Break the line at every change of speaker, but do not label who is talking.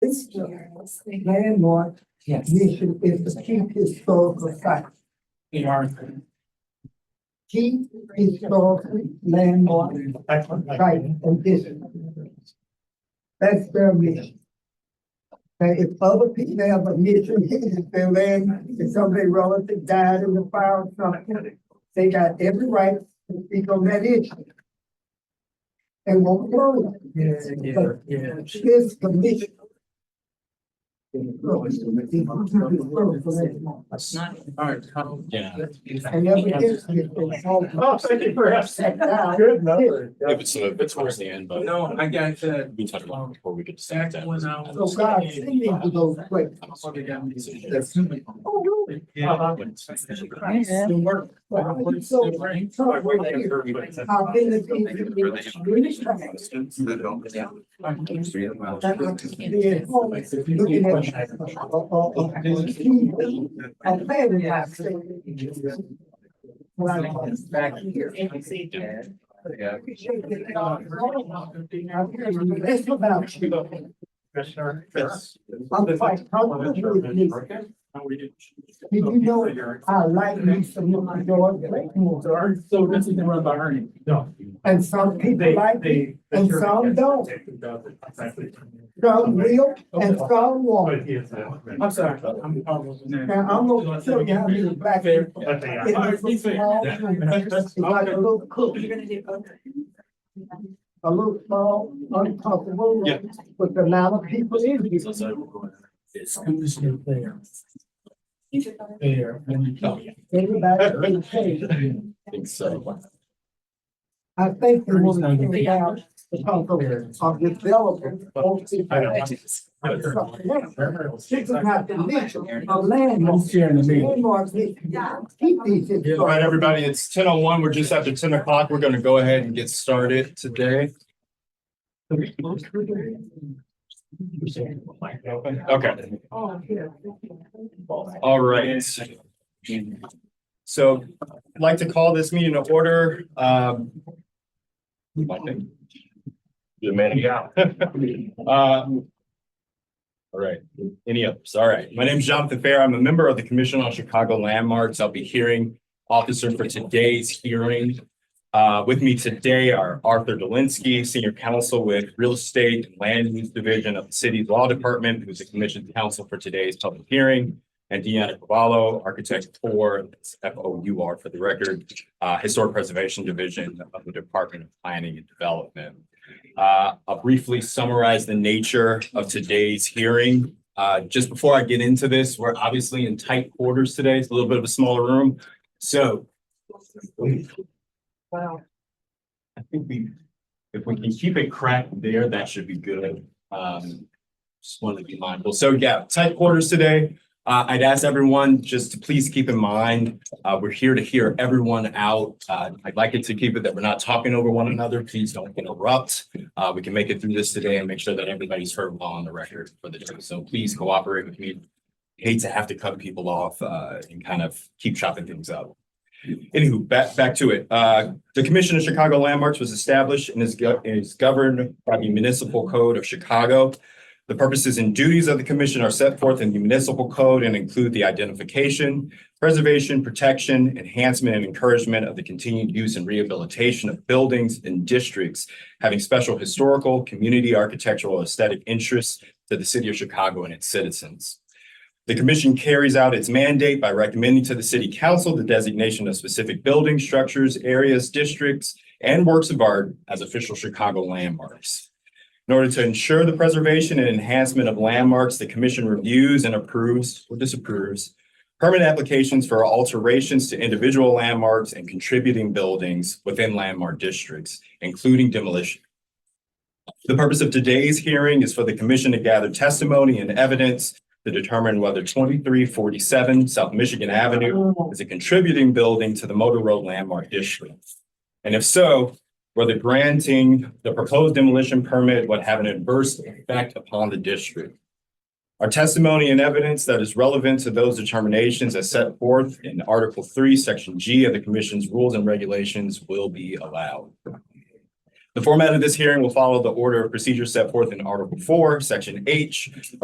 this landmark
Yes.
mission is to keep historical sites.
We are.
Keep historical landmark sites and districts. That's their mission. And if other people have a mission, if their land, if somebody relative died in the fire or something, they got every right to speak on that issue. And won't go. But This commission
That's not. Alright.
Yeah.
And every district is held
Oh, thank you for having
down.
that. Good number.
If it's, uh, it's towards the end, but
No, I got that.
we can talk about it before we get to
Back
that.
when I was-
So God, send me to those places.
I'm sorry, I got me to-
That's-
Oh, really?
Uh-huh.
The work.
Well, I think so.
Like, wait, they have her, but it's-
I've been to these really trying. That I could be at home looking at. uh, uh, uh, TV. I'm glad we have seen. When I was back here. I appreciate that, uh, I'm here to do this about you.
Commissioner.
Yes.
I'm quite comfortable with this. Did you know I like me some of my dog Blakemore?
So this is run by Ernie.
No.
And some people like it, and some don't. some real and some won't.
I'm sorry. I'm. I was-
Now, I'm gonna tell you how many black
Fair.
people. in this small room, It's like a little cook, a little small, uncomfortable
Yeah.
room with a lot of people in it.
It's commissioner there. There. and-
Oh, yeah.
Everybody is paid.
I think so.
I think the woman came down because of, of developers. This is not the nature of
I'm
landmarks.
sharing the meeting.
Landmarks need to keep these.
All right, everybody, it's ten oh one. We're just after ten o'clock. We're gonna go ahead and get started today. Okay, all right. So I'd like to call this meeting to order. Um, I think- Good man. Yeah. Uh, All right, any others? All right. My name is Jonathan Fair. I'm a member of the Commission on Chicago Landmarks. I'll be hearing officer for today's hearing. Uh, with me today are Arthur Delinsky, Senior Counsel with Real Estate and Land Use Division of the City's Law Department, who's the commission counsel for today's public hearing. And Deanna Cavallo, Architect for F O U R for the record, uh, Historic Preservation Division of the Department of Planning and Development. Uh, I'll briefly summarize the nature of today's hearing. Uh, just before I get into this, we're obviously in tight quarters today. It's a little bit of a smaller room. So
Wow.
I think we, if we can keep it cracked there, that should be good. Um, just wanted to be mindful. So yeah, tight quarters today. Uh, I'd ask everyone just to please keep in mind, uh, we're here to hear everyone out. Uh, I'd like it to keep it that we're not talking over one another. Please don't interrupt. Uh, we can make it through this today and make sure that everybody's heard well on the record for the day. So please cooperate with me. Hate to have to cut people off, uh, and kind of keep chopping things up. Anywho, back, back to it. Uh, the Commission of Chicago Landmarks was established and is go- is governed by the Municipal Code of Chicago. The purposes and duties of the commission are set forth in the municipal code and include the identification, preservation, protection, enhancement, and encouragement of the continued use and rehabilitation of buildings and districts having special historical, community, architectural, aesthetic interests to the city of Chicago and its citizens. The commission carries out its mandate by recommending to the city council the designation of specific buildings, structures, areas, districts, and works of art as official Chicago landmarks. In order to ensure the preservation and enhancement of landmarks, the commission reviews and approves or disapproves permit applications for alterations to individual landmarks and contributing buildings within landmark districts, including demolition. The purpose of today's hearing is for the commission to gather testimony and evidence to determine whether twenty-three forty-seven South Michigan Avenue is a contributing building to the Motor Road Landmark District. And if so, whether granting the proposed demolition permit would have an adverse effect upon the district. Our testimony and evidence that is relevant to those determinations as set forth in Article Three, Section G of the Commission's Rules and Regulations will be allowed. The format of this hearing will follow the order of procedure set forth in Article Four, Section H